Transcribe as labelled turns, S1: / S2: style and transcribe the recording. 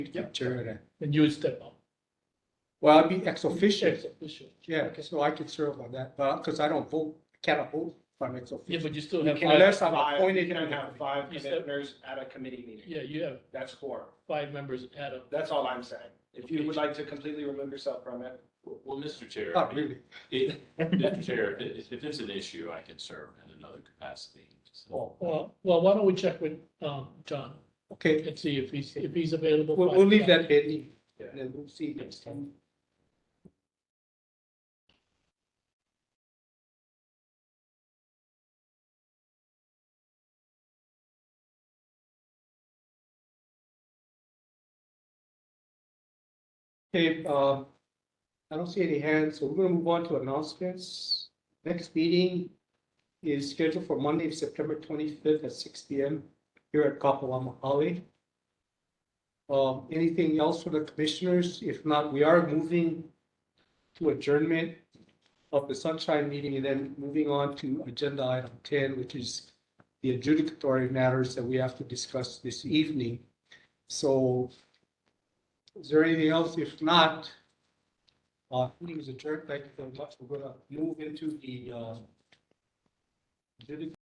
S1: picture. and-
S2: And you step up.
S1: Well, I'd be ex officio,
S2: Ex officio.
S1: yeah,
S2: Okay.
S1: so I could serve on that, but, because I don't vote, I cannot vote if I'm ex
S2: Yeah,
S1: officio.
S2: but you still
S3: You
S2: have,
S3: can
S2: five-
S1: Unless I'm
S3: Five,
S1: appointed.
S3: You can have five
S2: You said-
S3: commissioners at a committee meeting.
S2: yeah, you have
S3: That's core.
S2: five members at a,
S3: That's all I'm saying. If you
S4: Okay.
S3: would like to completely remove yourself from it,
S4: Well, Mr. Chair,
S1: Not Oh, really.
S4: if, Mr. Chair, if, if there's an issue, I can serve in another capacity. So,
S1: Well,
S2: well, well, why don't we check with, um, John
S1: Okay,
S2: and see if he's, if he's available.
S1: we'll,
S2: for-
S1: we'll leave that there, and then we'll see next time. Okay, um, I don't see any hands, so we're gonna move on to announcements. Next meeting is scheduled for Monday, September twenty-fifth at six P M here at Kapalama Halley. Um, anything else for the commissioners? If not, we are moving to adjournment of the sunshine meeting and then moving on to agenda item ten, which is the adjudicatory matters that we have to discuss this evening. So is there anything else? If not, uh, meeting is adjourned. Thank you very much. We're gonna move into the, uh, adjudic-